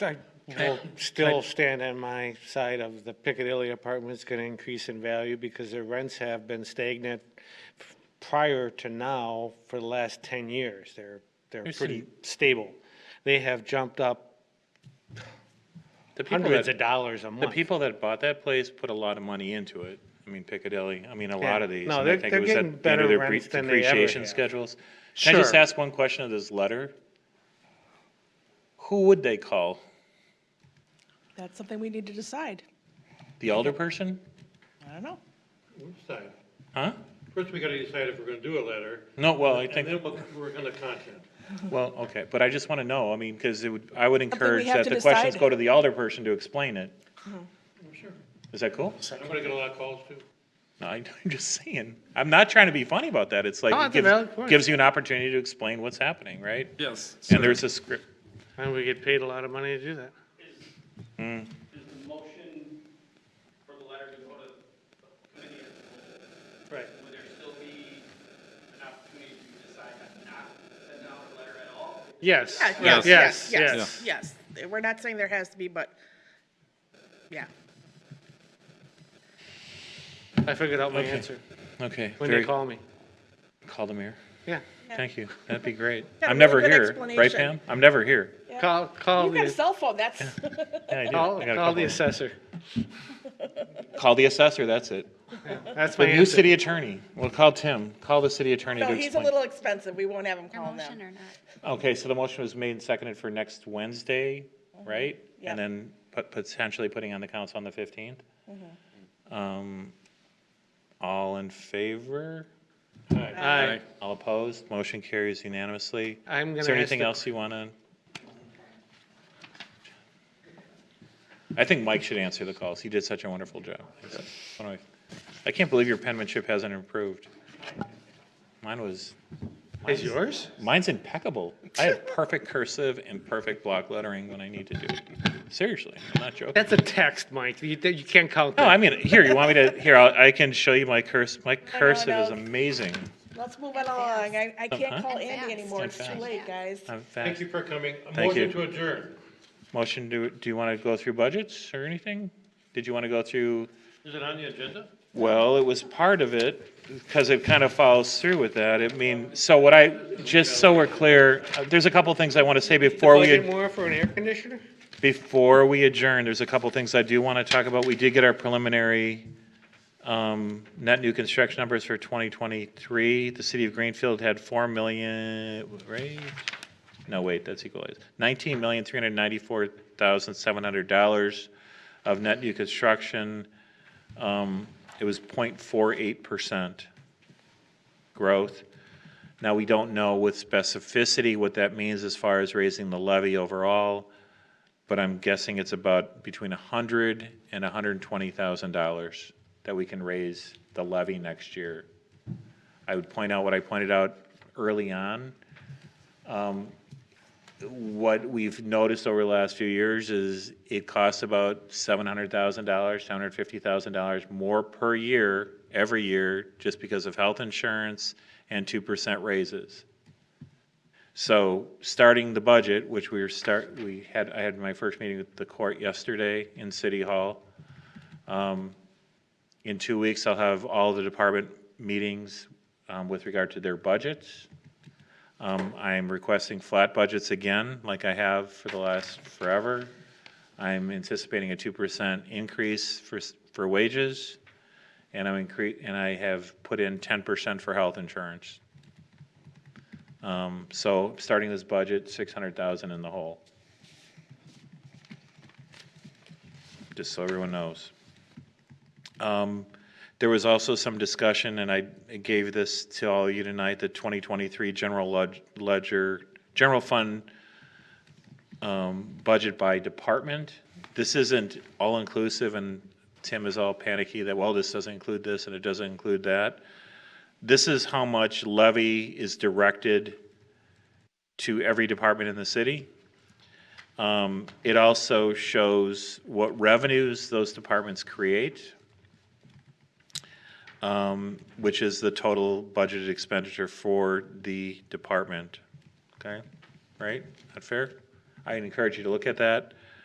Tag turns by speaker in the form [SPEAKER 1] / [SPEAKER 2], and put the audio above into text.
[SPEAKER 1] I will still stand on my side of the Piccadilly apartment's gonna increase in value because their rents have been stagnant f- prior to now for the last ten years. They're, they're
[SPEAKER 2] There's
[SPEAKER 1] pretty stable. They have jumped up
[SPEAKER 2] The people
[SPEAKER 1] hundreds
[SPEAKER 2] that-
[SPEAKER 1] of dollars a
[SPEAKER 2] The
[SPEAKER 1] month.
[SPEAKER 2] people that bought that place put a lot of money into it. I mean Piccadilly, I mean a lot of
[SPEAKER 1] Yeah.
[SPEAKER 2] these.
[SPEAKER 1] No,
[SPEAKER 2] and I
[SPEAKER 1] they're-
[SPEAKER 2] think it
[SPEAKER 1] they're
[SPEAKER 2] was at
[SPEAKER 1] getting
[SPEAKER 2] the end of
[SPEAKER 1] better
[SPEAKER 2] their
[SPEAKER 1] rents
[SPEAKER 2] bre-
[SPEAKER 1] than they ever
[SPEAKER 2] Depreciation
[SPEAKER 1] have.
[SPEAKER 2] schedules. Can I just
[SPEAKER 1] Sure.
[SPEAKER 2] ask one question of this letter? Who would they call?
[SPEAKER 3] That's something we need to decide.
[SPEAKER 2] The elder person?
[SPEAKER 3] I don't know.
[SPEAKER 4] We'll decide.
[SPEAKER 2] Huh?
[SPEAKER 4] First, we gotta decide if we're gonna do a letter,
[SPEAKER 2] No, well, I
[SPEAKER 4] and
[SPEAKER 2] think,
[SPEAKER 4] then we'll- we're gonna content.
[SPEAKER 2] well, okay, but I just want to know, I mean, because it would, I would encourage
[SPEAKER 3] have
[SPEAKER 2] that
[SPEAKER 3] to
[SPEAKER 2] the questions
[SPEAKER 3] decide. Mm-hmm.
[SPEAKER 2] go to the elder person to explain it.
[SPEAKER 4] Sure.
[SPEAKER 2] Is that cool?
[SPEAKER 4] I'm gonna get a lot of calls too.
[SPEAKER 2] No, I- I'm just saying. I'm not trying to be funny about that. It's like,
[SPEAKER 1] No,
[SPEAKER 2] it
[SPEAKER 1] it's a valid
[SPEAKER 2] gives,
[SPEAKER 1] point.
[SPEAKER 2] gives you an opportunity to explain what's happening, right?
[SPEAKER 5] Yes.
[SPEAKER 2] And there's a script.
[SPEAKER 1] And we get paid a lot of money to do that.
[SPEAKER 6] Is the motion for the letter to go to the committee as a whole?
[SPEAKER 1] Right.
[SPEAKER 6] Would there still be an opportunity to decide not to send out a letter at all?
[SPEAKER 1] Yes.
[SPEAKER 3] Yes, yes,
[SPEAKER 1] Yes.
[SPEAKER 3] yes, yes. We're not saying there has to be, but, yeah.
[SPEAKER 1] I figured out my answer
[SPEAKER 2] Okay.
[SPEAKER 1] when
[SPEAKER 2] very-
[SPEAKER 1] they call me.
[SPEAKER 2] Call the mayor.
[SPEAKER 1] Yeah.
[SPEAKER 2] Thank you. That'd be great.
[SPEAKER 3] Yeah,
[SPEAKER 2] I'm
[SPEAKER 3] really
[SPEAKER 2] never
[SPEAKER 3] good
[SPEAKER 2] here, right,
[SPEAKER 3] explanation.
[SPEAKER 2] Pam? I'm never here.
[SPEAKER 1] Call, call
[SPEAKER 3] You've got a
[SPEAKER 1] the,
[SPEAKER 3] cell phone, that's,
[SPEAKER 2] Yeah, I do.
[SPEAKER 1] call,
[SPEAKER 2] I got a
[SPEAKER 1] call the
[SPEAKER 2] couple.
[SPEAKER 1] assessor.
[SPEAKER 2] Call the assessor, that's it.
[SPEAKER 1] That's my
[SPEAKER 2] The new
[SPEAKER 1] answer.
[SPEAKER 2] city attorney. We'll call Tim. Call the city attorney to
[SPEAKER 3] no, he's a
[SPEAKER 2] explain.
[SPEAKER 3] little expensive, we won't have him
[SPEAKER 7] Your
[SPEAKER 3] calling them.
[SPEAKER 7] motion or not?
[SPEAKER 2] Okay, so the motion was made and seconded for next Wednesday, right?
[SPEAKER 3] Yeah.
[SPEAKER 2] And then pot- potentially putting on the council on the fifteenth? Um, all in favor?
[SPEAKER 1] Aye.
[SPEAKER 2] All opposed? Motion carries unanimously.
[SPEAKER 1] I'm gonna
[SPEAKER 2] Is there
[SPEAKER 1] ask
[SPEAKER 2] anything
[SPEAKER 1] the-
[SPEAKER 2] else you want to? I think Mike should answer the calls. He did such a wonderful job. What do I- I can't believe your penmanship hasn't improved. Mine was,
[SPEAKER 1] Is yours?
[SPEAKER 2] mine's impeccable. I have perfect cursive and perfect block lettering when I need to do it. Seriously, I'm not joking.
[SPEAKER 1] That's a text, Mike. You, you can't count
[SPEAKER 2] No,
[SPEAKER 1] that.
[SPEAKER 2] I mean, here, you want me to, here, I'll- I can show you my curse, my cursive is
[SPEAKER 3] no.
[SPEAKER 2] amazing.
[SPEAKER 3] Let's move it along, I, I can't
[SPEAKER 2] Uh-huh.
[SPEAKER 3] call Andy anymore, it's too
[SPEAKER 2] Advance.
[SPEAKER 3] late, guys.
[SPEAKER 2] I'm
[SPEAKER 4] Thank
[SPEAKER 2] fast.
[SPEAKER 4] you for coming. A
[SPEAKER 2] Thank
[SPEAKER 4] Motion
[SPEAKER 2] you.
[SPEAKER 4] to adjourn.
[SPEAKER 2] Motion, do, do you want to go through budgets or anything? Did you want to go through,
[SPEAKER 4] Is it on the agenda?
[SPEAKER 2] well, it was part of it, because it kind of follows through with that. I mean, so what I, just so we're clear, uh, there's a couple things I want to say before we.
[SPEAKER 1] Budget more for an air conditioner?
[SPEAKER 2] Before we adjourn, there's a couple things I do want to talk about. We did get our preliminary um, net new construction numbers for 2023. The city of Greenfield had 4 million, right? No, wait, that's equalized. $19,394,700 of net new construction. Um, It was 0.48% growth. Now, we don't know with specificity what that means as far as raising the levy overall but I'm guessing it's about between a hundred and hundred and twenty thousand dollars that we can raise the levy next year. I would point out what I pointed out early on. Um, What we've noticed over the last few years is it costs about seven hundred thousand dollars, seven hundred fifty thousand dollars more per year, every year, just because of health insurance and two percent raises. So starting the budget, which we were start, we had, I had my first meeting with the court yesterday in City Hall. Um, In two weeks, I'll have all the department meetings um, with regard to their budgets. Um, I'm requesting flat budgets again, like I have for the last forever. I'm anticipating a two percent increase for, s- for wages. And I'm incre, and I have put in ten percent for health insurance. Um, so starting this budget, six hundred thousand in the hole. Just so everyone knows. Um, there was also some discussion, and I gave this to all you tonight, the twenty twenty-three general lud- ledger, general fund um, budget by department. This isn't all-inclusive, and Tim is all panicky that, well, this doesn't include this and it doesn't include that this is how much levy is directed to every department in the city. Um, It also shows what revenues those departments create, um, which is the total budgeted expenditure for the department. Okay? Right? Not fair? I encourage you to look at that.